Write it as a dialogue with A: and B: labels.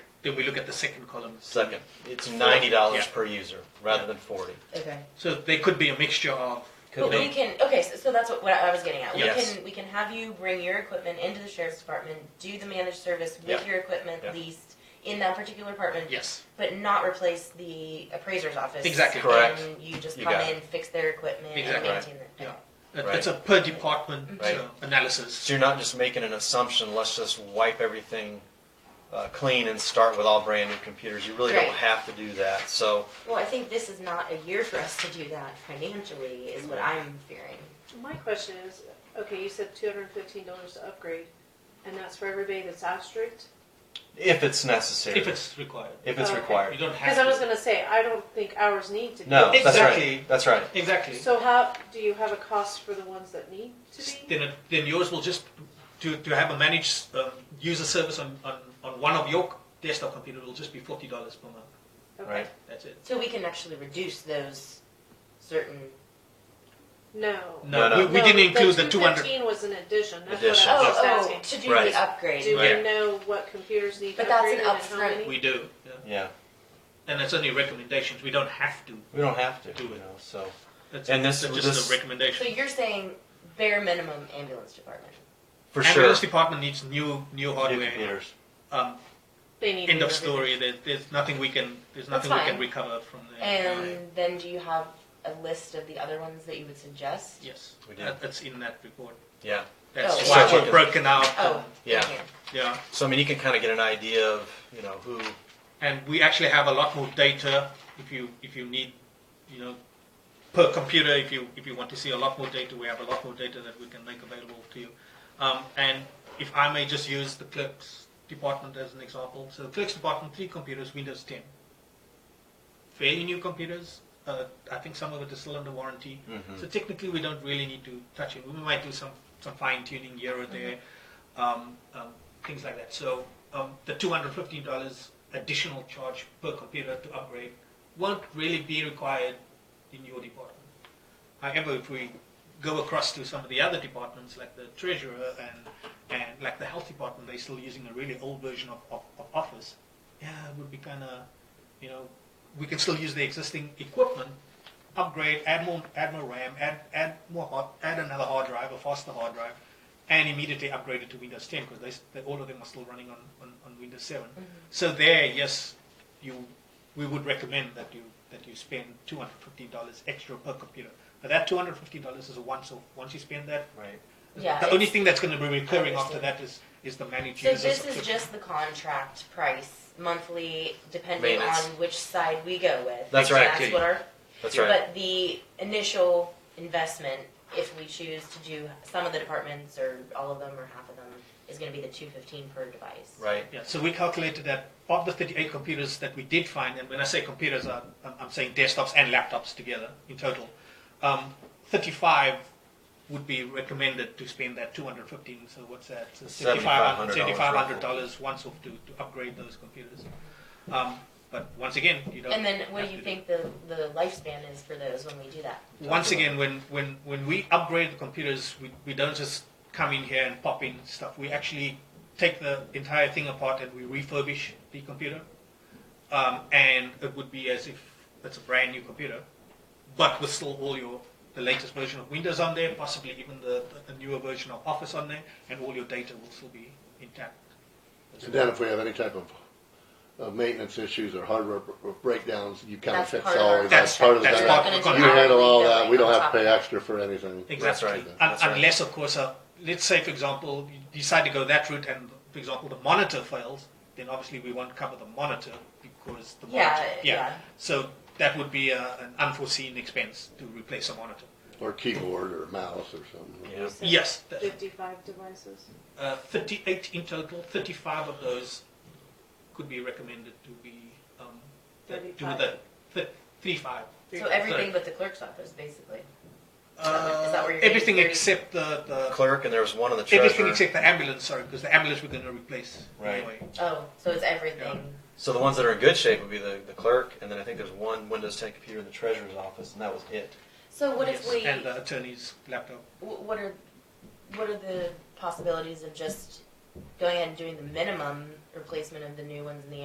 A: Then we look at the second column.
B: Second, it's ninety dollars
A: Yeah.
B: per user rather
A: Yeah.
B: than forty.
C: Okay.
A: So they could be a mixture of,
B: Could
C: But
B: be.
C: we can, okay, so, so that's what, what I was getting at. We
B: Yes.
C: can, we can have you bring your equipment into the sheriff's department, do the managed service
B: Yeah.
C: with your equipment
B: Yeah.
C: leased in that particular department,
A: yes,
C: but not replace the appraiser's office.
A: Exactly.
B: Correct.
C: And you just
B: You
C: come
B: got
C: in, fix their equipment and
A: Exactly.
C: maintain it.
A: Yeah. It-
B: Right.
A: it's a per department
B: Right.
A: uh, analysis.
B: So you're not just making an assumption, let's just wipe everything uh, clean and start with all brand new computers. You really don't
C: Right.
B: have to do that. So,
C: Well, I think this is not a year for us to do that financially, is what I'm fearing.
D: My question is, okay, you said two hundred and fifteen dollars to upgrade, and that's for everybody that's off strict?
B: if it's necessary,
A: If it's required,
B: if it's
D: Okay.
A: you
B: required,
A: don't have.
D: Cause I was
A: to.
D: gonna say, I don't think ours need to be.
B: no,
A: Exactly.
B: that's right.
A: Exactly.
D: So how, do you have a cost for the ones that need to be?
A: Then, it- then yours will just to, to have a managed um, user service on, on, on one of your desktop computer will just be forty dollars per month.
B: That's right,
D: Okay.
B: right.
A: That's it.
C: So we can actually reduce those certain,
D: No.
A: No,
B: No, no.
A: we, we didn't include the two hundred.
D: Fifteen was an addition, that's what
B: Addition.
D: I was
C: oh,
D: asking.
C: oh, to do
B: Right.
C: the upgrade.
D: Do
B: Right.
D: we know what computers need
C: But that's
D: upgrading and
C: an
D: how
C: upfront.
D: many?
A: We do, yeah.
B: Yeah,
A: and it's only recommendations. We don't have to.
B: we don't have to,
A: Do
B: you
A: it.
B: know, so.
A: That's
B: And this-
A: that's
B: this-
A: just a
C: So
A: recommendation.
C: you're saying bare minimum ambulance department.
B: For sure,
A: Ambulance department needs new new
B: new
A: hardware.
B: computers.
A: Um,
D: They need.
A: end
D: to
A: of
D: know
A: story. There, there's nothing we can. There's
C: That's
A: nothing we can
C: fine.
A: recover from there.
C: And then do you have a list of the other ones that you would suggest?
A: yes,
B: We did.
A: that, that's in that report.
B: Yeah,
A: That's
C: Oh.
A: why
B: So
A: we're
B: you-
A: broken out.
C: Oh,
B: Yeah.
C: okay.
A: and- yeah.
B: so I mean, you can kind of get an idea of, you know, who,
A: and we actually have a lot more data if you if you need you know per computer if you if you want to see a lot more data we have a lot more data that we can make available to you um, and if I may just use the clerks department as an example so the clerks department three computers Windows 10 fairly new computers uh, I think some of it is still under warranty
B: Mhm.
A: so technically, we don't really need to touch it. We might do some, some fine tuning here or there, um, um, things like that. So um, the $215 additional charge per computer to upgrade won't really be required in your department. However, if we go across to some of the other departments, like the treasurer and, and like the health department, they're still using a really old version of, of, of Office. Yeah, it would be kind of, you know, we can still use the existing equipment, upgrade, add more, add more RAM, add, add more hard, add another hard drive, a faster hard drive, and immediately upgrade it to Windows 10 because they, s- they, all of them are still running on, on, on Windows 7. So there, yes, you, we would recommend that you that you spend $215 extra per computer. But that $250 is a once off. Once you spend that,
B: right,
C: Yeah,
A: the only
C: it's-
A: thing that's going to be recurring after
C: understand.
A: that is is the managed
C: So
A: user
C: this is
A: subscription.
C: just the contract price monthly, depending on
B: Maintenance.
C: which side we go with.
B: That's right,
C: That's
B: Kitty.
C: what our,
B: that's right.
C: but the initial investment, if we choose to do some of the departments or all of them or half of them, is gonna be the two fifteen per device.
B: Right,
A: Yeah, so we calculated that of the 38 computers that we did find, and when I say computers, I- I'm, I'm saying desktops and laptops together in total, um, 35 would be recommended to spend that 215. So what's that? So
B: $7,500
A: $7,500 once off to, to upgrade those computers. Um, but once again, you don't.
C: And then what
A: have
C: do you
A: to
C: think the, the lifespan is for those when we do that?
A: once again, when, when, when we upgrade the computers, we, we don't just come in here and pop in stuff. We actually take the entire thing apart and we refurbish the computer. Um, and it would be as if it's a brand new computer, but with still all your the latest version of Windows on there, possibly even the, the newer version of Office on there, and all your data will still be intact.
E: And then if we have any type of, of maintenance issues or hardware b- breakdowns, you kind of
C: That's
E: fix
C: part of
E: all
C: our-
E: of that.
A: That's-
E: part of
A: that's
E: that.
A: part of the
E: You
A: contract.
E: handle all that. We don't
C: On top
E: have to
C: of
E: pay
C: that.
E: extra for anything.
A: Exactly.
B: right.
A: Un-
B: That's right.
A: Unless, of course, uh, let's say, for example, you decide to go that route and, for example, the monitor fails, then obviously we won't cover the monitor because the
C: Yeah,
A: monitor.
C: yeah.
A: So that would be uh an unforeseen expense to replace a monitor.
E: Or keyboard or mouse or something.
B: yeah.
D: You said
A: Yes. th-
D: Fifty-five devices.
A: Uh, 38 in total, 35 of those could be recommended to be. Um, that- to the, th- 35.
C: So everything but the clerk's office, basically.
A: Uh,
C: Is that where you're getting
A: everything
C: thirty?
A: except the. the
B: Uh, Clerk, and there was one in the
A: everything
B: treasurer.
A: except the ambulance, sorry, because the ambulance we're going to replace
B: Right.
A: anyway.
C: Oh, so it's everything.
B: So the ones that are in good shape would be the, the clerk, and then I think there's one Windows 10 computer in the treasurer's office, and that was it.
C: So what
A: Yes,
C: if we?
A: and uh, the attorney's laptop?
C: Wh- what are what are the possibilities of just going ahead and doing the minimum replacement of the new ones in the